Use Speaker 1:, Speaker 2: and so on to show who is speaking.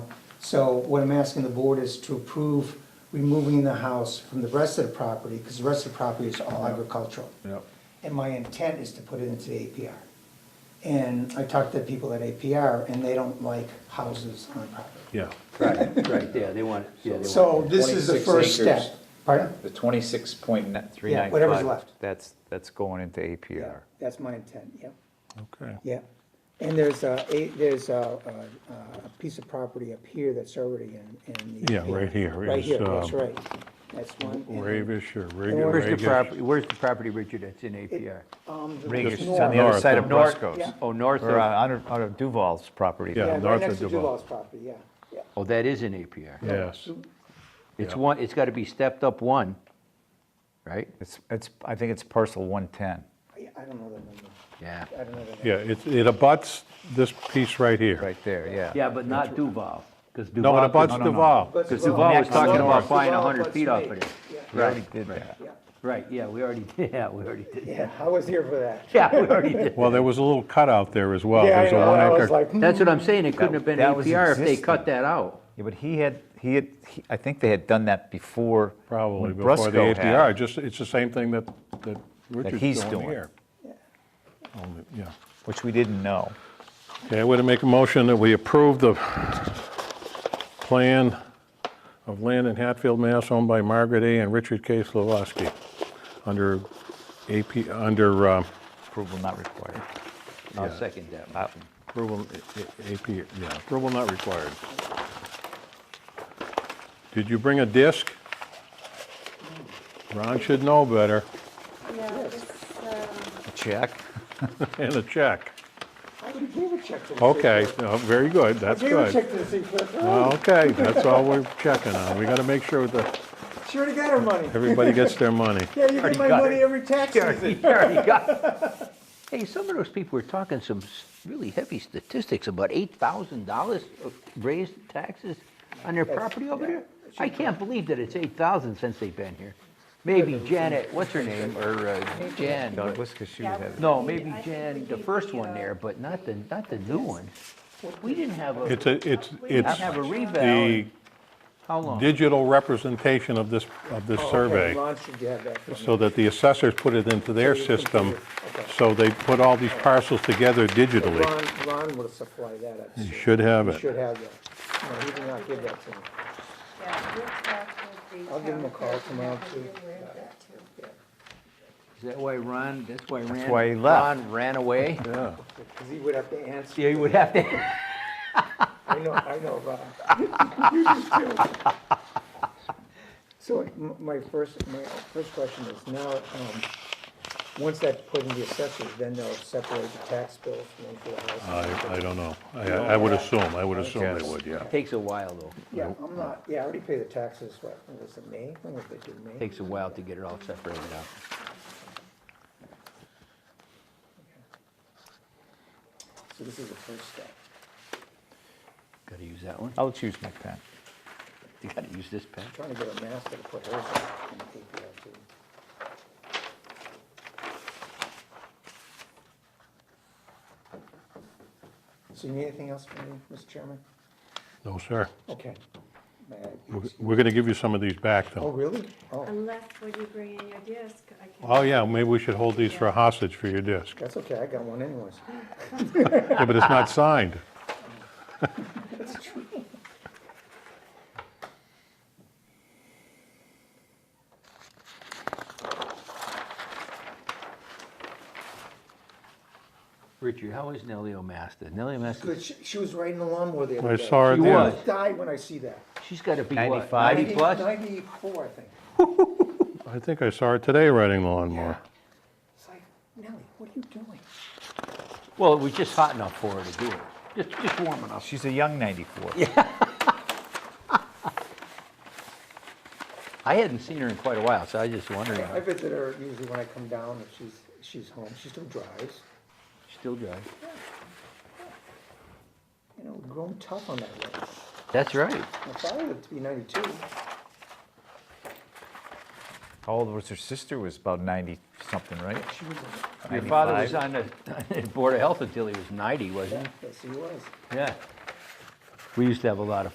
Speaker 1: So what I'm asking the board is to approve removing the house from the rest of the property, because the rest of the property is all agricultural.
Speaker 2: Yep.
Speaker 1: And my intent is to put it into the APR. And I talked to people at APR, and they don't like houses on property.
Speaker 2: Yeah.
Speaker 3: Right, right, yeah, they want, it. yeah, they want. it.
Speaker 1: So this is the
Speaker 4: 26
Speaker 1: first
Speaker 4: acres.
Speaker 1: step. Pardon?
Speaker 4: The twenty-six point nine,
Speaker 5: Three nine
Speaker 1: whatever's
Speaker 5: five,
Speaker 1: left.
Speaker 5: That's, that's going into APR.
Speaker 1: That's my intent, yep.
Speaker 2: Okay.
Speaker 1: Yeah, and there's a, a- there's a, a, a piece of property up here that's already in, in. the-
Speaker 2: Yeah, right here
Speaker 1: Right
Speaker 2: is,
Speaker 1: here, that's
Speaker 2: um,
Speaker 1: right. That's one. and-
Speaker 2: Ravish or
Speaker 3: Where's the
Speaker 2: Ragish.
Speaker 3: property, where's the property, Richard, that's in APR?
Speaker 1: Um, the-
Speaker 5: Ragish, it's
Speaker 1: north.
Speaker 5: on the other
Speaker 2: North
Speaker 5: side
Speaker 2: of
Speaker 5: of North
Speaker 1: Yeah.
Speaker 5: Coast,
Speaker 3: Oh, north
Speaker 5: or uh,
Speaker 3: of,
Speaker 5: out of out of Duval's property.
Speaker 2: Yeah.
Speaker 1: Yeah,
Speaker 2: north
Speaker 1: right
Speaker 2: of
Speaker 1: next to
Speaker 2: Duval.
Speaker 1: Duval's property, yeah, yeah.
Speaker 3: oh, that is in APR.
Speaker 2: Yes.
Speaker 3: It's
Speaker 2: Yeah.
Speaker 3: one, it's gotta be stepped up one, right?
Speaker 5: It's, it's, I think it's parcel 110.
Speaker 1: I- I don't know the number,
Speaker 3: Yeah.
Speaker 1: I don't know the
Speaker 2: Yeah,
Speaker 1: number.
Speaker 2: it, it abuts this piece right here.
Speaker 5: Right there, yeah.
Speaker 3: Yeah, but not Duval, because
Speaker 2: No, it
Speaker 3: Duval,
Speaker 2: abuts
Speaker 3: could-
Speaker 5: no, no.
Speaker 2: Duval.
Speaker 1: But
Speaker 3: because
Speaker 1: Duval-
Speaker 3: Duval was
Speaker 5: Next
Speaker 3: talking
Speaker 5: door.
Speaker 3: about buying
Speaker 1: Duval
Speaker 3: 100
Speaker 1: abuts
Speaker 3: feet off
Speaker 1: me.
Speaker 3: of it.
Speaker 5: We already did that.
Speaker 1: Yeah,
Speaker 3: Right, yeah, we already did, yeah, we already did.
Speaker 1: yeah, I was here for that.
Speaker 3: Yeah, we already did.
Speaker 2: Well, there was a little cutout there as well.
Speaker 1: Yeah, I
Speaker 2: Oh, There's a
Speaker 1: know,
Speaker 2: one
Speaker 1: I was
Speaker 2: acre-
Speaker 1: like, hmm.
Speaker 3: That's what I'm saying, it couldn't have been
Speaker 5: That was
Speaker 3: APR if they
Speaker 5: existing.
Speaker 3: cut that out.
Speaker 5: Yeah, but he had, he had, he- I think they had done that before.
Speaker 2: Probably
Speaker 5: when
Speaker 2: before the
Speaker 5: Brusco had
Speaker 2: APR,
Speaker 5: it.
Speaker 2: just, it's the same thing that, that
Speaker 5: he's
Speaker 2: Richard's doing
Speaker 5: doing.
Speaker 2: here. Only- Yeah.
Speaker 5: Which we didn't know.
Speaker 2: Okay, I would make a motion that we approve the plan of land in Hatfield, Mass. owned by Margaret A. and Richard K. Slavoski under AP, under uh,
Speaker 5: Approval not required.
Speaker 3: I'll second that motion.
Speaker 2: approval, A- A- AP, yeah, approval not required. Did you bring a disc? Ron should know better,
Speaker 6: Yeah, this, um,
Speaker 5: Check.
Speaker 2: and a check.
Speaker 1: I would give a check to the.
Speaker 2: Okay,
Speaker 1: city clerk.
Speaker 2: no, very good,
Speaker 1: I
Speaker 2: that's
Speaker 1: gave a
Speaker 2: good.
Speaker 1: check to the city clerk, oh,
Speaker 2: Okay, that's all we're checking on. We got to make sure that
Speaker 1: she already got her money.
Speaker 2: everybody gets their money.
Speaker 1: Yeah, you get my money every tax season.
Speaker 3: Hey, some of those people were talking some s- really heavy statistics about eight thousand dollars raised taxes on their property over there. I can't believe that it's eight thousand since they've been here. Maybe Janet, what's her name, or uh, Jan? but-
Speaker 5: Douglas, because she was
Speaker 6: Yeah.
Speaker 5: having.
Speaker 3: No, maybe
Speaker 6: I think we
Speaker 3: Jan, the
Speaker 6: gave
Speaker 3: first
Speaker 6: the,
Speaker 3: one
Speaker 6: uh,
Speaker 3: there, but not the, not the new one. We didn't have a,
Speaker 2: It's, a- it's,
Speaker 3: not have a
Speaker 2: it's the
Speaker 3: revale. How long?
Speaker 2: digital representation of this, of
Speaker 1: Oh,
Speaker 2: this survey,
Speaker 1: Ron, should you have that for me?
Speaker 2: so that the assessors put it into their
Speaker 1: So you can
Speaker 2: system,
Speaker 1: do it. Okay.
Speaker 2: so they put all these parcels together digitally.
Speaker 1: Ron, Ron would supply that, I'm
Speaker 2: You
Speaker 1: sure.
Speaker 2: should have
Speaker 1: You should
Speaker 2: it.
Speaker 1: have that. No, he did not give that to me.
Speaker 6: yeah, we'll talk with the
Speaker 1: I'll give him a
Speaker 6: town
Speaker 1: call
Speaker 6: clerk and
Speaker 1: tomorrow,
Speaker 6: have her
Speaker 1: too.
Speaker 6: aware of that, too.
Speaker 3: Is that why Ron, that's why Ran?
Speaker 5: why he left.
Speaker 3: Ron ran away?
Speaker 2: Yeah.
Speaker 1: Because he would have to answer.
Speaker 3: Yeah, you would have to,
Speaker 1: I know, I know, Ron. You just killed me. So m- my first, my first question is now, um, once that's put in the assessors, then they'll separate the tax bills from one for the house.
Speaker 2: I, I don't know. I, I would assume, I would assume they would, yeah.
Speaker 3: takes a while though.
Speaker 1: Yeah, I'm not, yeah, I already pay the taxes, what, was it May? When was it due, May?
Speaker 3: Takes a while to get it all separated out.
Speaker 1: So this is the first step.
Speaker 3: Gotta use that one.
Speaker 5: I'll choose my pen.
Speaker 3: You gotta use this pen.
Speaker 1: Trying to get a master to put hers in the APR too. So you need anything else from me, Mr. Chairman?
Speaker 2: No, sir.
Speaker 1: Okay. May I-
Speaker 2: We're- We're gonna give you some of these back,
Speaker 1: Oh,
Speaker 2: though.
Speaker 1: really? Oh,
Speaker 6: Unless when you bring in your disc, I can.
Speaker 2: Oh, yeah, maybe we should hold these for a hostage for your disc.
Speaker 1: that's okay, I got one anyways.
Speaker 2: Yeah, but it's not signed.
Speaker 3: Richard, how is Nellie Omasta? Nellie Omasta,
Speaker 1: Good, she, she was riding the lawnmower the other
Speaker 2: I
Speaker 1: day.
Speaker 2: saw her
Speaker 3: She
Speaker 2: there.
Speaker 3: was.
Speaker 1: I die when I see that.
Speaker 3: she's gotta be what,
Speaker 5: 95?
Speaker 3: ninety plus?
Speaker 1: Ninety-four, I think.
Speaker 2: I think I saw her today riding the lawnmower.
Speaker 1: It's like, Nellie, what are you doing?
Speaker 3: Well, it was just hot enough for her to do it. Just, just warm enough.
Speaker 5: She's a young 94.
Speaker 3: I hadn't seen her in quite a while, so I was just wondering.
Speaker 1: I visit her usually when I come down, if she's, she's home, she still drives.
Speaker 3: Still drives.
Speaker 1: You know, grown tough on that road.
Speaker 3: That's right.
Speaker 1: My father lived to be ninety-two.
Speaker 5: How old was her sister? Was about 90-something, right?
Speaker 1: She was, a-
Speaker 3: Your father was
Speaker 5: 95.
Speaker 3: on the Board of Health until he was ninety, wasn't
Speaker 1: yes, he was.
Speaker 3: he? Yeah. We used to have a lot of